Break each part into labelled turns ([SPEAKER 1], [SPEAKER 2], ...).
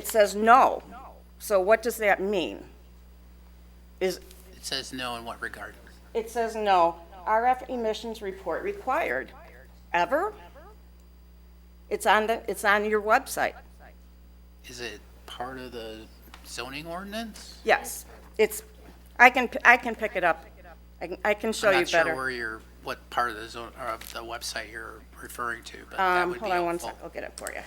[SPEAKER 1] It says no. So what does that mean? Is,
[SPEAKER 2] It says no in what regard?
[SPEAKER 1] it says no, RF emissions report required. Ever? It's on the, it's on your website.
[SPEAKER 2] Is it part of the zoning ordinance?
[SPEAKER 1] Yes, it's, I can, I can pick it up. I can, I can show
[SPEAKER 2] I'm
[SPEAKER 1] you
[SPEAKER 2] not sure
[SPEAKER 1] better.
[SPEAKER 2] where you're, what part of the zone, or of the website you're referring to, but that
[SPEAKER 1] Um,
[SPEAKER 2] would be
[SPEAKER 1] hold on one sec,
[SPEAKER 2] helpful.
[SPEAKER 1] I'll get it for you.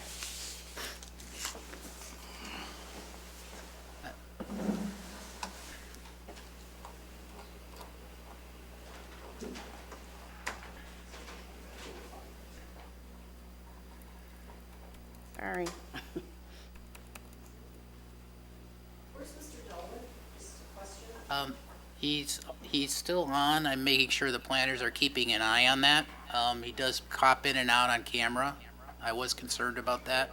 [SPEAKER 1] Sorry.
[SPEAKER 2] Um, he's, he's still on. I'm making sure the planners are keeping an eye on that. Um, he does cop in and out on camera. I was concerned about that.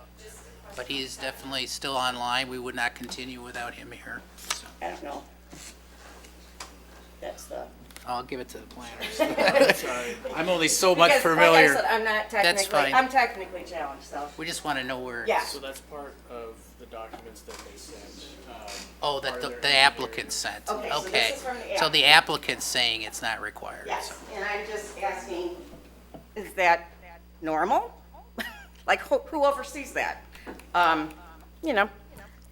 [SPEAKER 2] But he's definitely still online. We would not continue without him here. So
[SPEAKER 1] I don't know. That's the.
[SPEAKER 2] I'll give it to the planners. I'm only so much
[SPEAKER 1] Because, Like I said,
[SPEAKER 2] familiar.
[SPEAKER 1] I'm not
[SPEAKER 2] That's
[SPEAKER 1] technically,
[SPEAKER 2] fine.
[SPEAKER 1] I'm technically challenged, so,
[SPEAKER 2] We just want to know where.
[SPEAKER 1] yeah.
[SPEAKER 3] So that's part of the documents that they sent. um,
[SPEAKER 2] Oh,
[SPEAKER 3] part
[SPEAKER 2] that
[SPEAKER 3] of
[SPEAKER 2] the
[SPEAKER 3] their
[SPEAKER 2] the
[SPEAKER 3] engineering.
[SPEAKER 2] applicant
[SPEAKER 1] Okay,
[SPEAKER 2] sent,
[SPEAKER 1] so this
[SPEAKER 2] okay.
[SPEAKER 1] is from the
[SPEAKER 2] So the applicant's saying it's not required. so-
[SPEAKER 1] Yes, and I'm just asking, is that normal? Like, who who oversees that? Um, You know,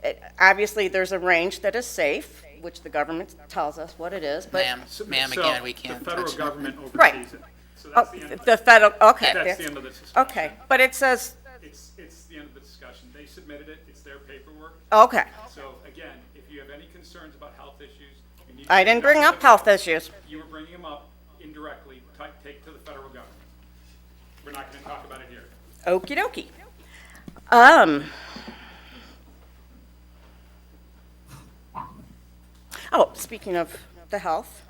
[SPEAKER 1] it- obviously, there's a range that is safe, which the government tells us what it is, but,
[SPEAKER 2] Ma'am,
[SPEAKER 4] So-
[SPEAKER 2] ma'am,
[SPEAKER 4] so
[SPEAKER 2] again, we can't
[SPEAKER 4] The federal
[SPEAKER 2] touch that.
[SPEAKER 4] government
[SPEAKER 1] Right.
[SPEAKER 4] oversees it. So
[SPEAKER 1] oh,
[SPEAKER 4] that's the end of
[SPEAKER 1] the
[SPEAKER 4] it.
[SPEAKER 1] federal, okay.
[SPEAKER 4] That's the
[SPEAKER 1] there-
[SPEAKER 4] end of the discussion.
[SPEAKER 1] Okay, but it says,
[SPEAKER 4] It's, it's the end of the discussion. They submitted it, it's their paperwork.
[SPEAKER 1] okay,
[SPEAKER 4] So again, if you have any concerns about health issues, you need. to
[SPEAKER 1] I didn't bring up health issues.
[SPEAKER 4] You were bringing them up indirectly, Ti- take to the federal government. We're not going to talk about it here.
[SPEAKER 1] Okey dokey. Um. Oh, speaking of the health,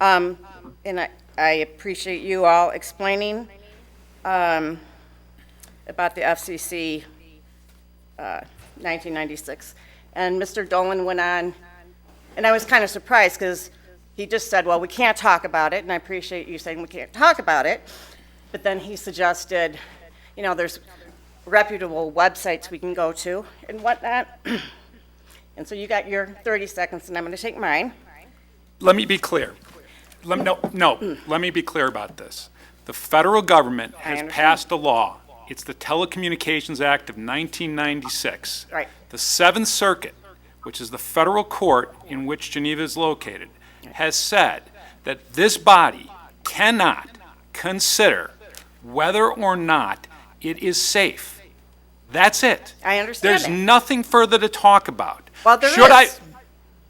[SPEAKER 1] um, and I, I appreciate you all explaining, um, about the FCC, uh, 1996. And Mr. Dolan went on, and I was kind of surprised because he just said, well, we can't talk about it, and I appreciate you saying we can't talk about it. But then he suggested, you know, there's reputable websites we can go to and whatnot. And so you got your 30 seconds, and I'm going to take mine.
[SPEAKER 5] let me be clear. Let, no, no, let me be clear about this. The federal government has
[SPEAKER 1] understand.
[SPEAKER 5] passed a law. It's the Telecommunications Act of 1996.
[SPEAKER 1] Right.
[SPEAKER 5] The Seventh Circuit, which is the federal court in which Geneva is located, has said that this body cannot consider whether or not it is safe. That's it.
[SPEAKER 1] I understand
[SPEAKER 5] There's
[SPEAKER 1] that.
[SPEAKER 5] nothing further to talk about.
[SPEAKER 1] Well, there
[SPEAKER 5] Should I,
[SPEAKER 1] is.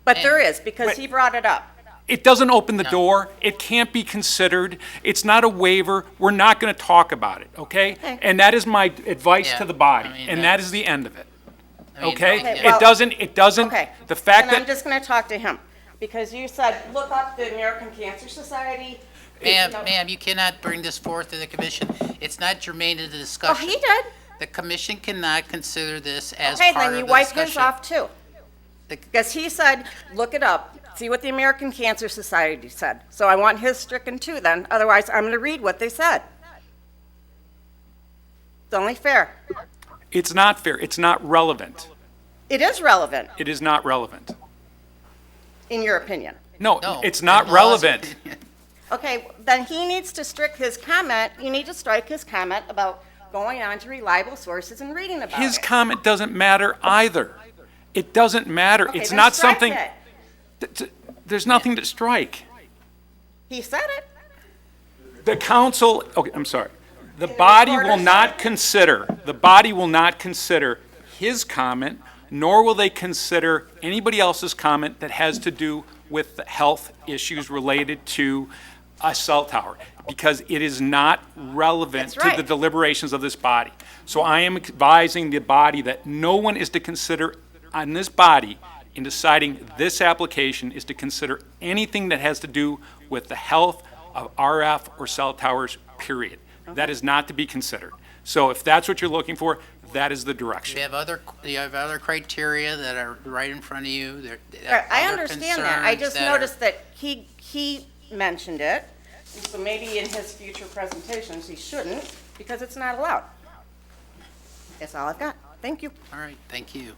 [SPEAKER 1] But there is, because
[SPEAKER 5] Wait.
[SPEAKER 1] he brought it up.
[SPEAKER 5] it doesn't open the door. It can't be considered. It's not a waiver. We're not going to talk about it, okay? And that is my advice
[SPEAKER 2] Yeah,
[SPEAKER 5] to the body,
[SPEAKER 2] I mean,
[SPEAKER 5] and that is the end of it,
[SPEAKER 2] I mean,
[SPEAKER 5] okay?
[SPEAKER 2] yeah.
[SPEAKER 1] well-
[SPEAKER 5] It doesn't, it doesn't,
[SPEAKER 1] Okay.
[SPEAKER 5] the fact
[SPEAKER 1] And I'm
[SPEAKER 5] that,
[SPEAKER 1] just going to talk to him, because you said, look up the American Cancer Society.
[SPEAKER 2] Ma'am,
[SPEAKER 1] No.
[SPEAKER 2] ma'am, you cannot bring this forth to the commission. It's not germane to the
[SPEAKER 1] Oh,
[SPEAKER 2] discussion.
[SPEAKER 1] he did.
[SPEAKER 2] The commission cannot consider this as
[SPEAKER 1] Okay,
[SPEAKER 2] part of
[SPEAKER 1] then
[SPEAKER 2] the
[SPEAKER 1] you wipe his
[SPEAKER 2] discussion.
[SPEAKER 1] off too.
[SPEAKER 2] The-
[SPEAKER 1] Because he said, look it up, see what the American Cancer Society said. So I want his stricken too then, otherwise I'm going to read what they said. It's only fair.
[SPEAKER 5] it's not fair. It's not relevant.
[SPEAKER 1] It is relevant,
[SPEAKER 5] It is not relevant.
[SPEAKER 1] in your opinion.
[SPEAKER 5] No,
[SPEAKER 2] No,
[SPEAKER 5] it's
[SPEAKER 2] the
[SPEAKER 5] not
[SPEAKER 2] laws-
[SPEAKER 5] relevant.
[SPEAKER 1] Okay, then he needs to strike his comment, you need to strike his comment about going on to reliable sources and reading about
[SPEAKER 5] His
[SPEAKER 1] it.
[SPEAKER 5] comment doesn't matter either. It doesn't matter.
[SPEAKER 1] Okay,
[SPEAKER 5] It's
[SPEAKER 1] then
[SPEAKER 5] not
[SPEAKER 1] strike
[SPEAKER 5] something,
[SPEAKER 1] it.
[SPEAKER 5] th- th- there's nothing to strike.
[SPEAKER 1] He said it.
[SPEAKER 5] The council, okay, I'm sorry. The body will
[SPEAKER 1] recorder's-
[SPEAKER 5] not consider, the body will not consider his comment, nor will they consider anybody else's comment that has to do with the health issues related to a cell tower, because it is not relevant
[SPEAKER 1] That's
[SPEAKER 5] to the
[SPEAKER 1] right.
[SPEAKER 5] deliberations of this body. So I am advising the body that no one is to consider, on this body, in deciding this application, is to consider anything that has to do with the health of RF or cell towers, period. That is not to be considered. So if that's what you're looking for, that is the
[SPEAKER 2] You
[SPEAKER 5] direction.
[SPEAKER 2] have other, you have other criteria that are right in front of you. There- there
[SPEAKER 1] Right,
[SPEAKER 2] are
[SPEAKER 1] I
[SPEAKER 2] other
[SPEAKER 1] understand that. I
[SPEAKER 2] concerns
[SPEAKER 1] just
[SPEAKER 2] that are-
[SPEAKER 1] noticed that he, he mentioned it. and So maybe in his future presentations, he shouldn't, because it's not allowed. That's all I've got. Thank you.
[SPEAKER 2] All right, thank you.